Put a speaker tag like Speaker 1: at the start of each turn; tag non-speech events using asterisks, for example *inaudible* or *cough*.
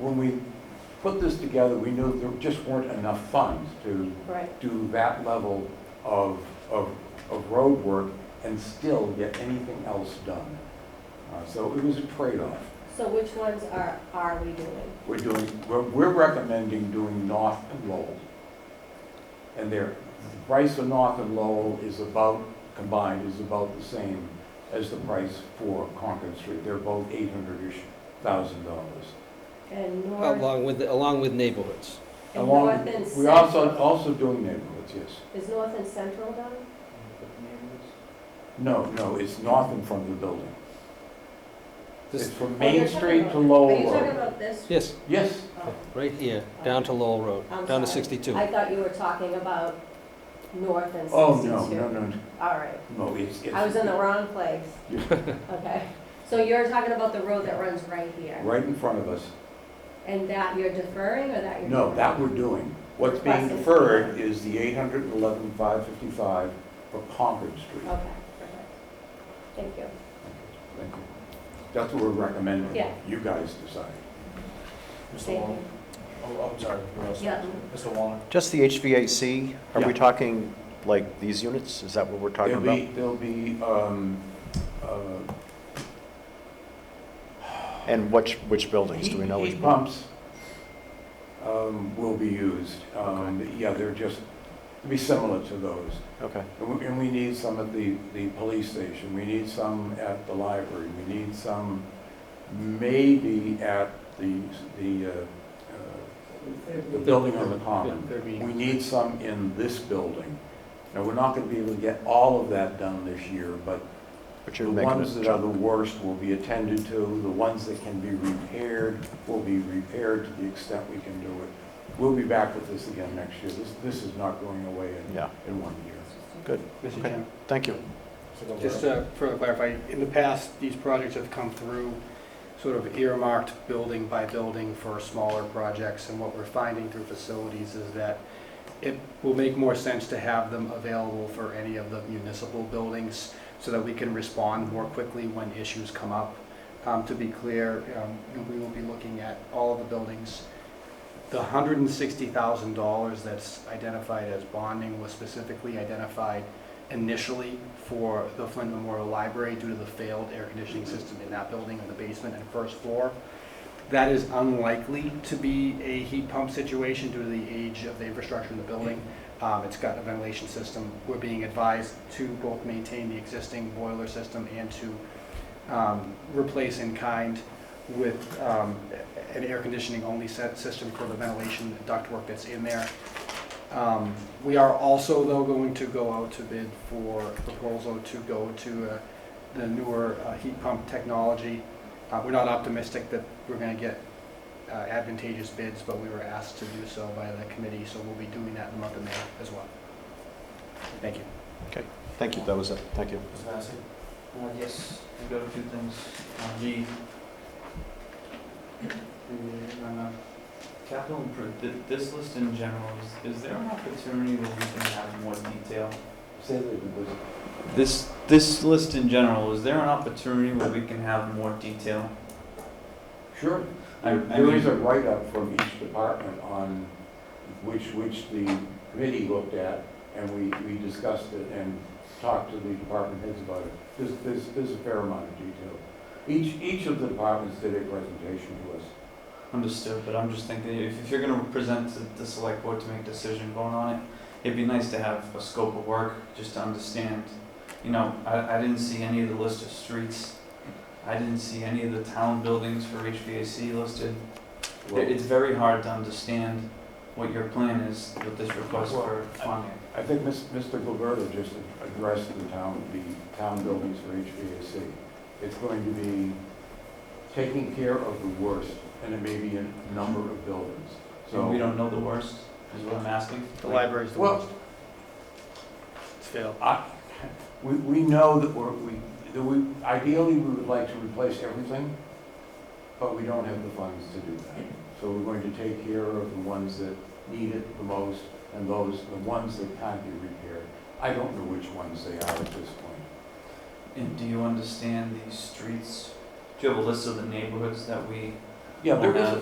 Speaker 1: when we put this together, we knew there just weren't enough funds to
Speaker 2: Right,
Speaker 1: do that level of, of, of road work and still get anything else done. Uh, So it was a trade-off.
Speaker 2: so which ones are, are we doing?
Speaker 1: We're doing, we're, we're recommending doing North and Lowell. And their, the price for North and Lowell is about, combined, is about the same as the price for Concord Street. They're both eight hundred-ish thousand dollars.
Speaker 2: And north,
Speaker 3: Along with, along with neighborhoods.
Speaker 2: and
Speaker 1: Along-
Speaker 2: north and
Speaker 1: We're also,
Speaker 2: central?
Speaker 1: also doing neighborhoods, yes.
Speaker 2: Is north and central done?
Speaker 1: No, no, it's north in front of the building. It's
Speaker 3: This,
Speaker 1: from
Speaker 2: Oh,
Speaker 1: Main
Speaker 2: you're talking
Speaker 1: Street
Speaker 2: about-
Speaker 1: to Lowell
Speaker 2: Are you talking
Speaker 1: Road.
Speaker 2: about this?
Speaker 3: yes,
Speaker 1: Yes,
Speaker 2: Oh,
Speaker 3: right here, down to Lowell Road,
Speaker 2: I'm
Speaker 3: down to
Speaker 2: sorry.
Speaker 3: 62.
Speaker 2: Oh. I thought you were talking about north and sixty-two.
Speaker 1: oh, no, no, no,
Speaker 2: All right,
Speaker 1: no, it's, it's.
Speaker 2: I was in the wrong place.
Speaker 1: *laughs* Yeah.
Speaker 2: Okay, so you're talking about the road that runs right here?
Speaker 1: Right in front of us.
Speaker 2: And that you're deferring or that you're?
Speaker 1: No,
Speaker 2: doing?
Speaker 1: that we're doing. What's being
Speaker 2: Requested.
Speaker 1: deferred is the eight hundred and eleven, five fifty-five for Concord Street.
Speaker 2: Okay, perfect. Thank you.
Speaker 1: Thank you. That's what we're recommending.
Speaker 2: Yeah.
Speaker 1: You guys decide.
Speaker 4: Mr.
Speaker 2: Thank
Speaker 4: Wallner?
Speaker 2: you.
Speaker 4: Oh, I'm sorry. who else?
Speaker 2: Yeah,
Speaker 4: Mr. Wallner?
Speaker 5: Just the HVAC, are
Speaker 1: Yeah.
Speaker 5: we talking like these units? Is that what we're
Speaker 1: There'll
Speaker 5: talking about?
Speaker 1: be, there'll be, um, uh,
Speaker 5: And which, which buildings? Do we know
Speaker 1: Heat-
Speaker 5: which?
Speaker 1: Heat pumps um, will be used. Um, Yeah, they're just, it'll be similar to those.
Speaker 5: Okay,
Speaker 1: And we- and we need some at the, the police station, we need some at the library, we need some maybe at the, the, uh, uh, the building on the common. We need some in this building. Now, we're not going to be able to get all of that done this year, but
Speaker 5: but
Speaker 1: the
Speaker 5: you're making
Speaker 1: ones
Speaker 5: a
Speaker 1: that are the
Speaker 5: jump.
Speaker 1: worst will be attended to, the ones that can be repaired will be repaired to the extent we can do it. We'll be back with this again next year, this, this is not going away in,
Speaker 5: Yeah,
Speaker 1: in one year.
Speaker 6: Mr.
Speaker 5: Okay.
Speaker 6: Chairman,
Speaker 5: thank you.
Speaker 4: Mr. Gilberto?
Speaker 1: uh,
Speaker 6: just to further clarify, in the past, these projects have come through sort of earmarked building by building for smaller projects, and what we're finding through facilities is that it will make more sense to have them available for any of the municipal buildings so that we can respond more quickly when issues come up. Um, To be clear, um, we will be looking at all of the buildings. The hundred and sixty thousand dollars that's identified as bonding was specifically identified initially for the Flint Memorial Library due to the failed air conditioning system in that building in the basement and first floor. That is unlikely to be a heat pump situation due to the age of the infrastructure in the building. Um, It's got a ventilation system. We're being advised to both maintain the existing boiler system and to um, replace in kind with um, an air conditioning only set system for the ventilation ductwork that's in there. Um, We are also, though, going to go out to bid for a proposal to go to uh, the newer uh, heat pump technology. Uh, We're not optimistic that we're going to get uh, advantageous bids, but we were asked to do so by the committee, so we'll be doing that in the month of May as well. Thank you.
Speaker 5: Thank you, that was it, thank you.
Speaker 4: Mr. Massey? Uh, yes, we've got a few things Uh, on G. The, uh, Capital improve, th- this list in general, is, is there an opportunity where we can have more detail?
Speaker 1: Say that it was-
Speaker 4: This, this list in general, is there an opportunity where we can have more detail?
Speaker 1: Sure.
Speaker 4: I- I
Speaker 1: There is
Speaker 4: mean-
Speaker 1: a write-up from each department on which, which the committee looked at, and we, we discussed it and talked to the department heads about it. There's, there's, there's a fair amount of detail. Each, each of the departments did a presentation to us.
Speaker 4: Understood, but I'm just thinking, if, if you're gonna present to the select board to make a decision going on it, it'd be nice to have a scope of work, just to understand. You know, I, I didn't see any of the list of streets, I didn't see any of the town buildings for HVAC listed.
Speaker 1: Well,
Speaker 4: It, it's very hard to understand what your plan is with this request for funding.
Speaker 1: I think Miss- Mr. Gilberto just addressed the town, the town buildings for HVAC. It's going to be taking care of the worst, and it may be a number of buildings.
Speaker 4: So
Speaker 1: So
Speaker 4: we don't know the worst, is what I'm asking.
Speaker 6: The library's the
Speaker 1: Well-
Speaker 6: worst. It's failed.
Speaker 1: I, we, we know that we're, we, that we, ideally, we would like to replace everything, but we don't have the funds to do that. So we're going to take care of the ones that need it the most, and those, the ones that can't be repaired. I don't know which ones they are at this point.
Speaker 4: And do you understand these streets? Do you have a list of the neighborhoods that we
Speaker 1: Yeah, there
Speaker 4: Well,
Speaker 1: is,
Speaker 4: uh,